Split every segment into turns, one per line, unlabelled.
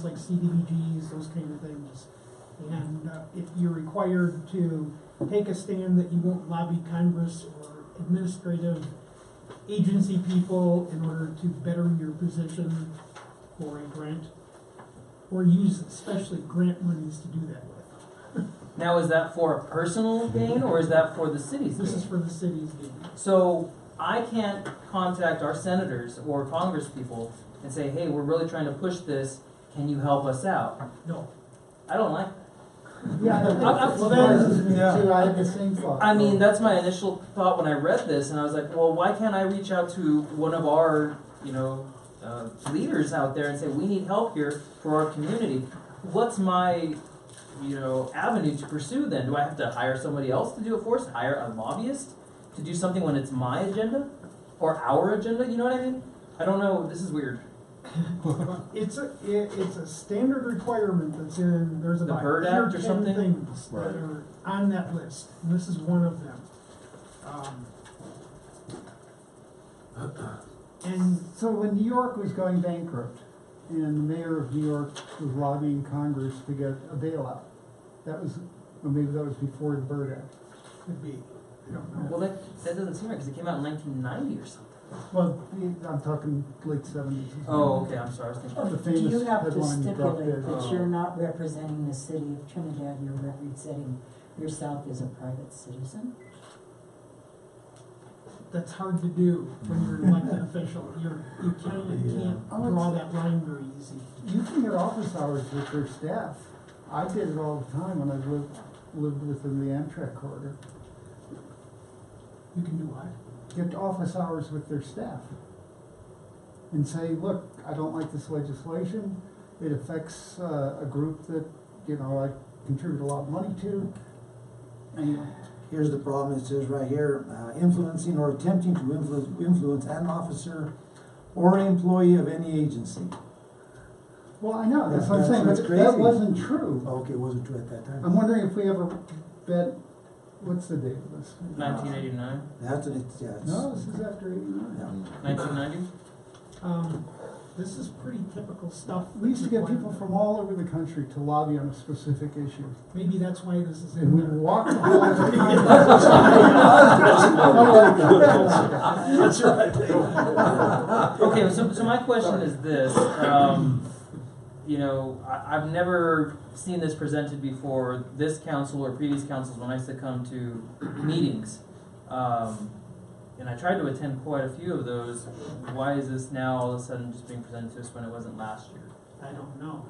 It's like CDBGs, those kind of things. And uh, if you're required to take a stand that you won't lobby Congress or administrative agency people in order to better your position for a grant, or use especially grant monies to do that with.
Now, is that for a personal gain or is that for the city's
This is
gain?
for the city's gain.
So I can't contact our senators or congresspeople and say, hey, we're really trying to push this, can you help us out?
No.
I don't like,
Yeah, that-
I'm-
well,
I'm-
that is me too,
yeah.
I had the same thought.
I mean, that's my initial thought when I read this and I was like, well, why can't I reach out to one of our, you know, uh, leaders out there and say, we need help here for our community? What's my, you know, avenue to pursue then? Do I have to hire somebody else to do it for us? Hire a lobbyist to do something when it's my agenda or our agenda? You know what I mean? I don't know. This is weird.
It's a, it, it's a standard requirement that's in, there's
The
about
Byrd
eight
Act or
10
something?
Things that
Right.
are on that list, and this is one of them. Um, And
So when New York was going bankrupt, and the mayor of New York was lobbying Congress to get a bailout, that was, or maybe that was before the Byrd Act.
could be, I don't know.
Well, that, that doesn't seem right because it came out in 1990 or something.
Well, the- I'm talking late seventies.
Oh, okay. I'm sorry. I was thinking.
The
Do
famous
you have to
headline drop
stipulate
dead.
that you're not representing the city of Trinidad, you're representing yourself as a private citizen?
That's hard to do when you're an elected official, you're, you kinda can't
Oh, it's-
draw that line very easy.
You can get office hours with your staff. I did it all the time when I lived, lived within the Amtrak corridor.
You can do what?
get office hours with their staff and say, look, I don't like this legislation. It affects uh, a group that, you know, I contribute a lot of money to. Anyway,
Here's the problem, it says right here, uh, influencing or attempting to influence, influence an officer or employee of any agency.
well, I know, that's what I'm
That's-
saying, but
that's
that
crazy.
wasn't true.
Okay, it wasn't true at that
I'm
time.
wondering if we ever bet, what's the date of this?
1989,
That's what it, yeah, it's-
No, this is after eighty-nine.
yeah.
1990.
Um, this is pretty typical stuff.
We used to get people from all over the country to lobby on a specific issue.
Maybe that's why this is
And
in
we
there.
walked the halls of Congress.
That's right.
Okay, so, so my question is this, um, you know, I, I've never seen this presented before, this council or previous councils, when I used to come to meetings. Um, and I tried to attend quite a few of those, why is this now all of a sudden just being presented to us when it wasn't last year?
I don't know.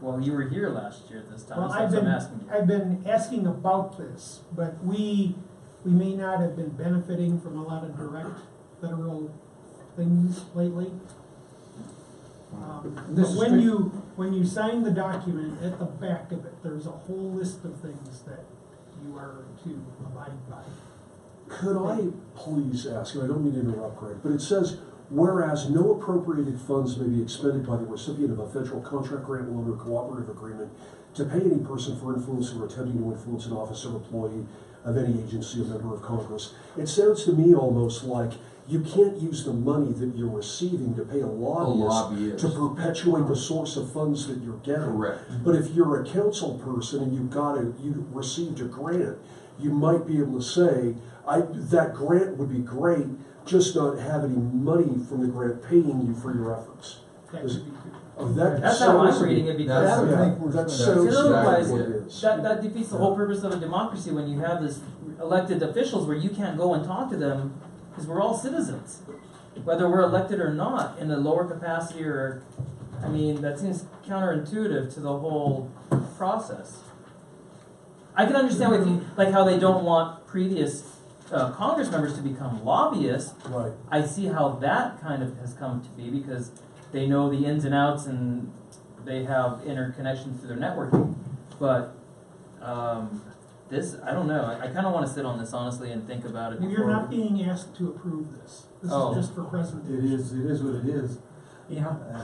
Well, you were here last year at this time,
Well,
that's
I've
what I'm
been-
asking you.
I've been asking about this, but we, we may not have been benefiting from a lot of direct federal things lately. Um, But
This is
when
strict-
you, when you sign the document, at the back of it, there's a whole list of things that you are to abide by.
Could I please ask, and I don't mean to interrupt, Greg, but it says, whereas no appropriated funds may be expended by the recipient of a federal contract grant loan or cooperative agreement to pay any person for influencing or attempting to influence an officer, employee of any agency, or member of Congress. It sounds to me almost like you can't use the money that you're receiving to pay a lobbyist
lobbyist.
to perpetuate the source of funds that you're getting.
Correct.
But if you're a council person and you got a, you received a grant, you might be able to say, I, that grant would be great, just not have any money from the grant paying you for your efforts.
That
Is-
would be good.
Oh, that
That's how I'm
sounds-
reading it because.
That would
yeah,
make more
that
sense.
sounds
Because otherwise,
exactly what it is.
That, that defeats the whole purpose of a democracy when you have this elected officials where you can't go and talk to them, because we're all citizens. Whether we're elected or not, in a lower capacity or, I mean, that seems counterintuitive to the whole process. I can understand with you, like how they don't want previous, uh, Congress members to become lobbyists,
Right,
I see how that kind of has come to be because they know the ins and outs and they have interconnections through their networking. But um, this, I don't know. I, I kind of want to sit on this honestly and think about it.
And
Before
You're not being asked to approve this. This
Oh.
is just for presentation.
It is, it is what it is.
Yeah.
And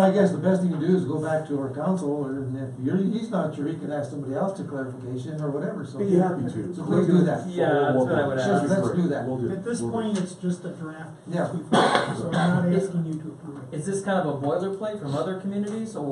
I guess the best thing to do is go back to our council, or if you're, he's not sure, he can ask somebody else to clarification or whatever, so.
be happy to.
So please do that.
Yeah, that's what I would ask.
Let's do that.
We'll do.
At this point, it's just a draft.
Yeah.
So I'm not asking you to approve it.
Is this kind of a boilerplate from other communities, or